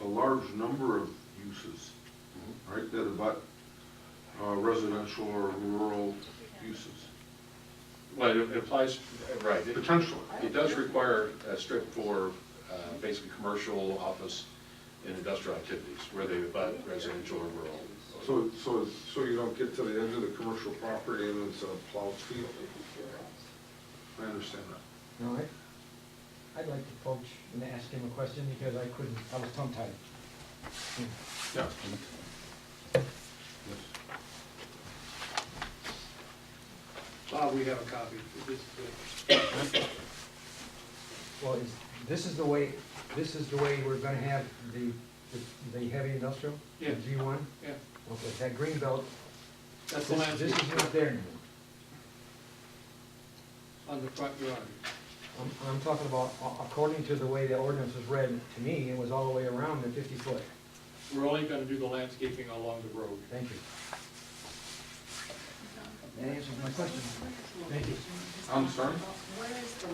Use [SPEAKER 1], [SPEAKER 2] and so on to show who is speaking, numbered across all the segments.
[SPEAKER 1] large number of uses, right, that abut uh, residential or rural uses,
[SPEAKER 2] Well, it applies, right, it-
[SPEAKER 1] potentially.
[SPEAKER 2] it does require a strip for uh, basically commercial, office, and industrial activities, where they abut residential or rural.
[SPEAKER 3] So, so, so you don't get to the edge of the commercial property and it's a plowed field?
[SPEAKER 1] I understand that.
[SPEAKER 4] No, I, I'd like to approach and ask him a question because I couldn't, I was tongue tied.
[SPEAKER 1] Yeah.
[SPEAKER 5] Bob, we have a copy. This is
[SPEAKER 4] Well, is, this is the way, this is the way we're gonna have the, the- the heavy industrial?
[SPEAKER 5] Yeah.
[SPEAKER 4] G one?
[SPEAKER 5] the- Yeah,
[SPEAKER 4] Okay, that green belt, this,
[SPEAKER 5] that's the
[SPEAKER 4] this is
[SPEAKER 5] landscape
[SPEAKER 4] not there anymore.
[SPEAKER 5] on the front yard.
[SPEAKER 4] I'm, I'm talking about, a- according to the way the ordinance was read, to me, it was all the way around the fifty foot.
[SPEAKER 5] We're only gonna do the landscaping along the road.
[SPEAKER 4] Thank you. That answers my question. Thank you.
[SPEAKER 1] I'm sorry?
[SPEAKER 6] Where is the,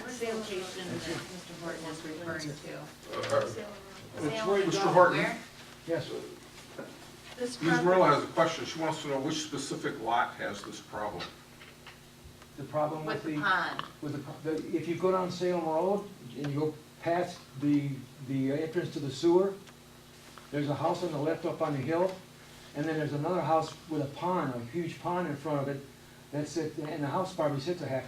[SPEAKER 6] where's the location that Mr. Horton is referring to?
[SPEAKER 1] It's
[SPEAKER 6] Sale
[SPEAKER 1] right,
[SPEAKER 6] of
[SPEAKER 1] Mr.
[SPEAKER 6] dog,
[SPEAKER 1] Horton.
[SPEAKER 6] where?
[SPEAKER 4] Yes,
[SPEAKER 6] This
[SPEAKER 1] Ms. Merle
[SPEAKER 6] property,
[SPEAKER 1] has a question. She wants to know which specific lot has this problem.
[SPEAKER 4] the problem
[SPEAKER 6] with the pond,
[SPEAKER 4] with the, the- if you go down Salem Road and you go past the, the entrance to the sewer, there's a house on the left up on the hill, and then there's another house with a pond, a huge pond in front of it. That's it, and the house probably sits a half,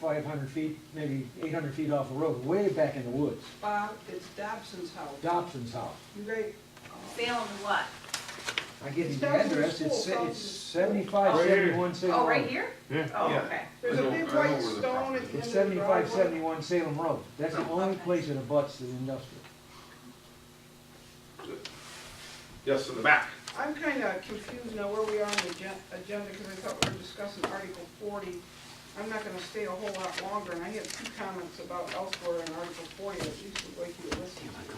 [SPEAKER 4] five hundred feet, maybe eight hundred feet off the road, way back in the woods.
[SPEAKER 7] Bob, it's Dobson's house.
[SPEAKER 4] Dobson's house.
[SPEAKER 7] You guys, uh,
[SPEAKER 6] sale of what?
[SPEAKER 4] I give you
[SPEAKER 7] It's
[SPEAKER 4] the
[SPEAKER 7] down to the
[SPEAKER 4] address, it's, se-
[SPEAKER 7] school, down
[SPEAKER 4] it's
[SPEAKER 7] to the school.
[SPEAKER 4] seventy-five,
[SPEAKER 1] Right here.
[SPEAKER 4] seventy-one Salem Road.
[SPEAKER 6] Oh, right here?
[SPEAKER 1] Yeah.
[SPEAKER 6] Oh,
[SPEAKER 1] Yeah.
[SPEAKER 6] okay.
[SPEAKER 7] there's
[SPEAKER 1] I
[SPEAKER 7] a
[SPEAKER 1] know- I
[SPEAKER 7] big
[SPEAKER 1] know where
[SPEAKER 7] white
[SPEAKER 1] the
[SPEAKER 7] stone
[SPEAKER 1] property
[SPEAKER 7] at the
[SPEAKER 4] It's
[SPEAKER 7] end of the
[SPEAKER 4] seventy-five,
[SPEAKER 7] driveway.
[SPEAKER 4] seventy-one Salem Road. That's the
[SPEAKER 1] No.
[SPEAKER 4] only place that abuts the industrial.
[SPEAKER 3] Yes, in the back.
[SPEAKER 7] I'm kind of confused now where we are on the gen- agenda, because I thought we were discussing Article forty. I'm not going to stay a whole lot longer, and I had two comments about elsewhere in Article forty, that you should wait to listen to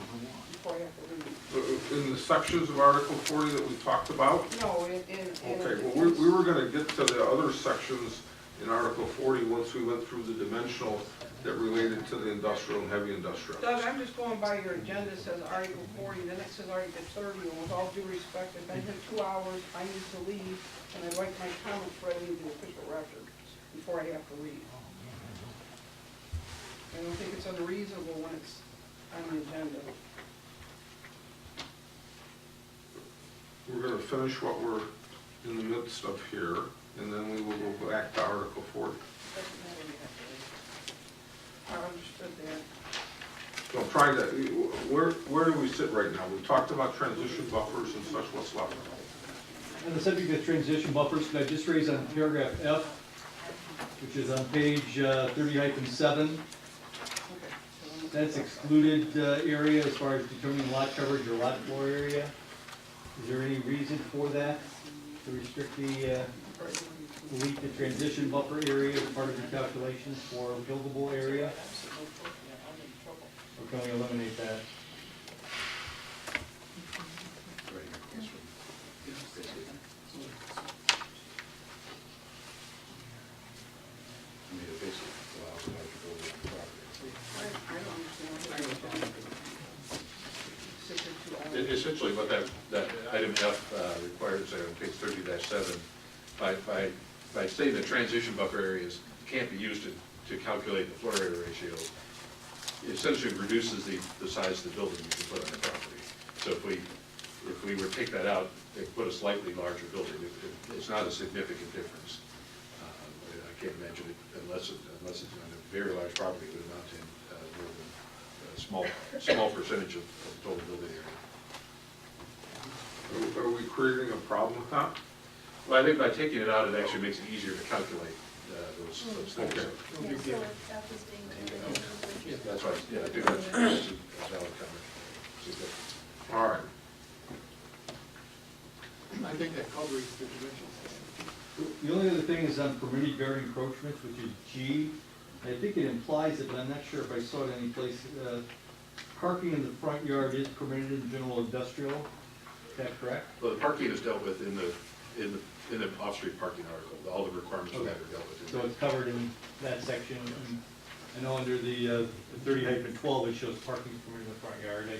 [SPEAKER 7] before I have to leave.
[SPEAKER 3] Uh, In the sections of Article forty that we talked about?
[SPEAKER 7] No, in, in. in-
[SPEAKER 3] Okay, well, we, we were gonna get to the other sections in Article forty once we went through the dimensional that related to the industrial and heavy industrial.
[SPEAKER 7] Doug, I'm just going by your agenda, it says Article forty, then it says Article thirty, and with all due respect, I've been here two hours, I need to leave, and I'd like my comments read into the official record before I have to leave. I don't think it's unreasonable when it's on the agenda.
[SPEAKER 3] We're gonna finish what we're in the midst of here, and then we will go back to Article forty.
[SPEAKER 7] Doesn't matter, you have to leave. I understood that.
[SPEAKER 3] So I'm trying to, where, where do we sit right now? We talked about transition buffers and such, what's left?
[SPEAKER 8] On the subject of transition buffers, could I just raise on paragraph F, which is on page uh, thirty hyphen seven?
[SPEAKER 7] Okay. so let me-
[SPEAKER 8] That's excluded uh, area as far as determining lot coverage or lot floor area. Is there any reason for that, to restrict the, uh, delete the transition buffer area as part of your calculations for buildable area? Or can we eliminate that?
[SPEAKER 2] I mean, it basically allows larger building on property.
[SPEAKER 7] I I don't understand what you're doing. Sit here two hours.
[SPEAKER 2] E- Essentially, what that, that item F uh, requires, uh, page thirty seven, by, by, by saying that transition buffer areas can't be used to, to calculate the floor area ratio, it essentially reduces the, the size of the building you can put on the property. So if we, if we were to take that out, it put a slightly larger building, It- it- it's not a significant difference. Uh, I can't imagine it, unless, it- unless it's on a very large property, it would amount to uh, more than a small, small percentage of of total building area.
[SPEAKER 3] Are- Are we creating a problem with that?
[SPEAKER 2] Well, I think by taking it out, it actually makes it easier to calculate uh, those, those things.
[SPEAKER 3] Okay.
[SPEAKER 2] So,
[SPEAKER 6] Yeah, so that was being taken out.
[SPEAKER 2] That's why, yeah, I think that's that's a valid comment.
[SPEAKER 3] All right.
[SPEAKER 5] I think that covers the dimensions.
[SPEAKER 8] The only other thing is on permitted yard encroachments, which is G. I think it implies it, but I'm not sure if I saw it anyplace. Uh, Parking in the front yard is permitted in general industrial, is that correct?
[SPEAKER 2] Well, the parking is dealt with in the, in the, in the off-street parking article, all the requirements for that are dealt with.
[SPEAKER 8] So
[SPEAKER 2] in
[SPEAKER 8] it's covered in that uh, section. And I know under the thirty hyphen twelve, it shows parking permitted in the front yard. I